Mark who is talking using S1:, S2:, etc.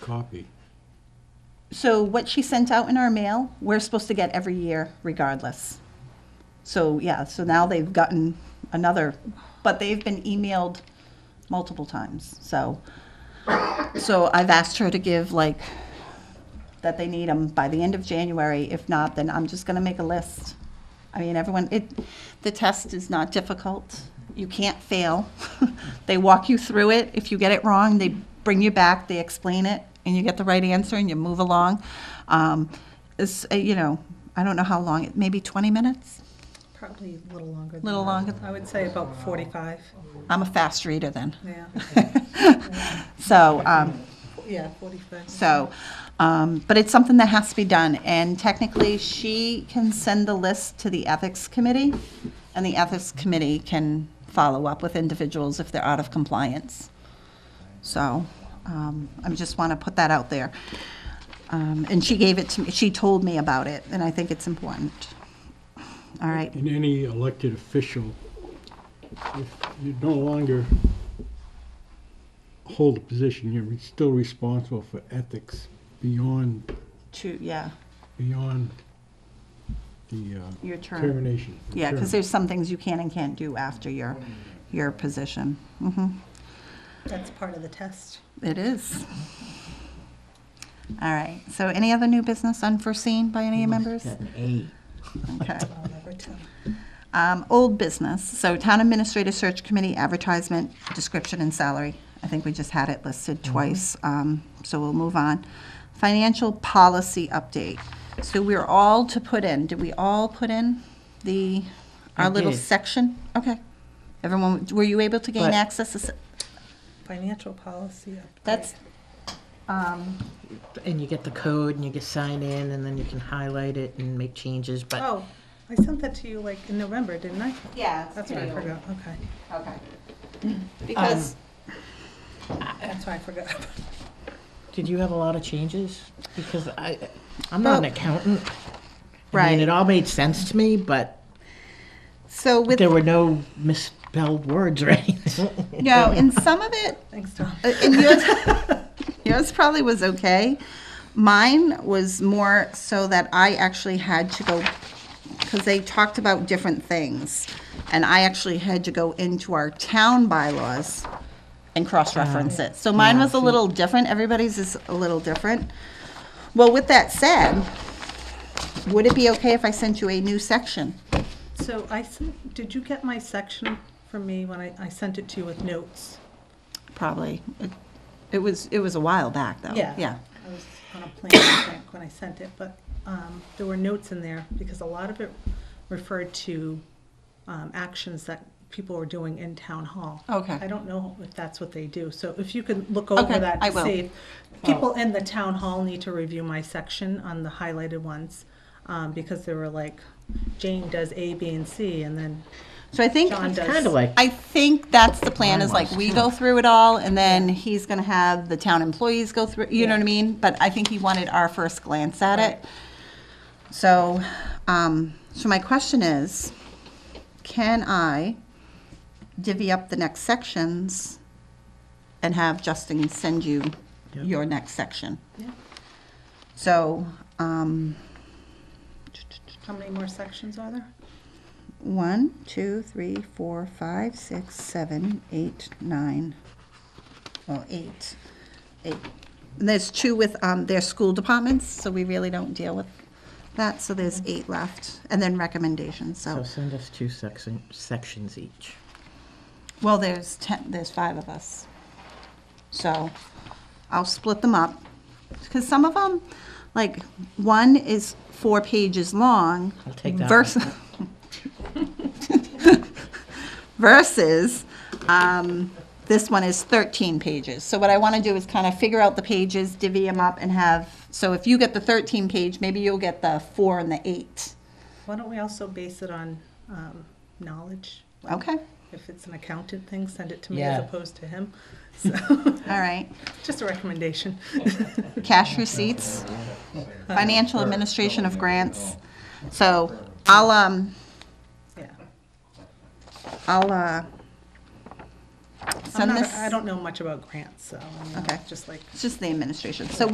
S1: copy?
S2: So what she sent out in our mail, we're supposed to get every year regardless. So, yeah, so now they've gotten another, but they've been emailed multiple times, so. So I've asked her to give like, that they need them by the end of January. If not, then I'm just gonna make a list. I mean, everyone, it, the test is not difficult. You can't fail. They walk you through it. If you get it wrong, they bring you back, they explain it, and you get the right answer and you move along. Um, It's, uh, you know, I don't know how long, it maybe 20 minutes?
S3: Probably a little longer than
S2: Little
S3: that.
S2: longer.
S3: I would say about 45,
S2: I'm a fast reader then.
S3: yeah.
S2: So, um,
S3: Yeah, 45.
S2: So, um, but it's something that has to be done, and technically, she can send the list to the Ethics Committee, and the Ethics Committee can follow up with individuals if they're out of compliance. So, um, I just want to put that out there. Um, and she gave it to me, she told me about it, and I think it's important. All right,
S1: And any elected official, if you no longer hold a position, you're still responsible for ethics beyond,
S2: two, yeah,
S1: beyond the uh,
S2: your turn.
S1: termination. the
S2: Yeah, because
S1: term.
S2: there's some things you can and can't do after your, your position. hmm
S3: That's part of the test.
S2: It is. All right, so any other new business unforeseen by any members?
S4: Got an A.
S2: Okay.
S3: I'll never tell.
S2: Um, Old business, so Town Administrative Search Committee advertisement, description and salary. I think we just had it listed
S4: Mm-hmm.
S2: twice, um, so we'll move on. Financial policy update. So we're all to put in, did we all put in the,
S4: I
S2: our little
S4: did.
S2: section? Okay. Everyone, were you able to gain
S4: But-
S2: access? to s-
S3: Financial policy update.
S2: That's, um,
S4: And you get the code and you get signed in and then you can highlight it and make changes, but
S3: Oh, I sent that to you like in November, didn't I?
S2: yeah. it's
S3: That's what I
S2: pretty old.
S3: forgot, okay.
S2: Okay. Um, Because,
S3: That's why I forgot.
S4: did you have a lot of changes? Because I, I'm not an
S2: Well-
S4: accountant. I
S2: Right.
S4: mean, it all made sense to me, but
S2: so with,
S4: there were no misspelled words or anything.
S2: no, in some of it,
S3: Thanks, Tom.
S2: uh, in yours, yours probably was okay. Mine was more so that I actually had to go, because they talked about different things. And I actually had to go into our town bylaws and cross-reference it. So mine was a little different, everybody's is a little different. Well, with that said, would it be okay if I sent you a new section?
S3: So I sent, did you get my section from me when I, I sent it to you with notes?
S2: Probably. It- It was, it was a while back, though. Yeah.
S3: I was on a plane, I think, when I sent it, but um, there were notes in there because a lot of it referred to um, actions that people were doing in town hall.
S2: Okay.
S3: I don't know if that's what they do, so if you could look over
S2: Okay,
S3: that
S2: I
S3: to
S2: will.
S3: see. if- People in the town hall need to review my section on the highlighted ones, um, because there were like, Jane does A, B, and C, and then
S2: So I think,
S3: John does.
S4: Kind of like,
S2: I think that's the plan, is like, we go through it all, and then he's gonna have the town employees go through, you know what I mean? But I think he wanted our first glance at it. So, um, so my question is, can I divvy up the next sections and have Justin send you your next section?
S3: Yeah.
S2: So, um,
S3: How many more sections are there?
S2: One, two, three, four, five, six, seven, eight, nine. Well, eight, eight. And there's two with um, their school departments, so we really don't deal with that. So there's eight left, and then recommendations.
S4: so
S2: So,
S4: send us two section, sections each.
S2: well, there's ten. There's five of us. So, I'll split them up because some of them, like one is four pages long.
S4: I'll take that one.
S2: Versus, versus, um, this one is 13 pages. So what I want to do is kind of figure out the pages, divvy them up and have, so if you get the 13 page, maybe you'll get the four and the eight.
S3: Why don't we also base it on um, knowledge?
S2: Okay,
S3: If it's an accountant thing, send it to me as
S4: Yeah.
S3: opposed to him. So,
S2: all right.
S3: just a recommendation.
S2: Cash receipts, financial administration of grants. So I'll, um,
S3: Yeah.
S2: I'll uh,
S3: I'm
S2: send
S3: not,
S2: this?
S3: I don't know much about grants, so, I mean,
S2: Okay.
S3: just like
S2: It's just the administration. So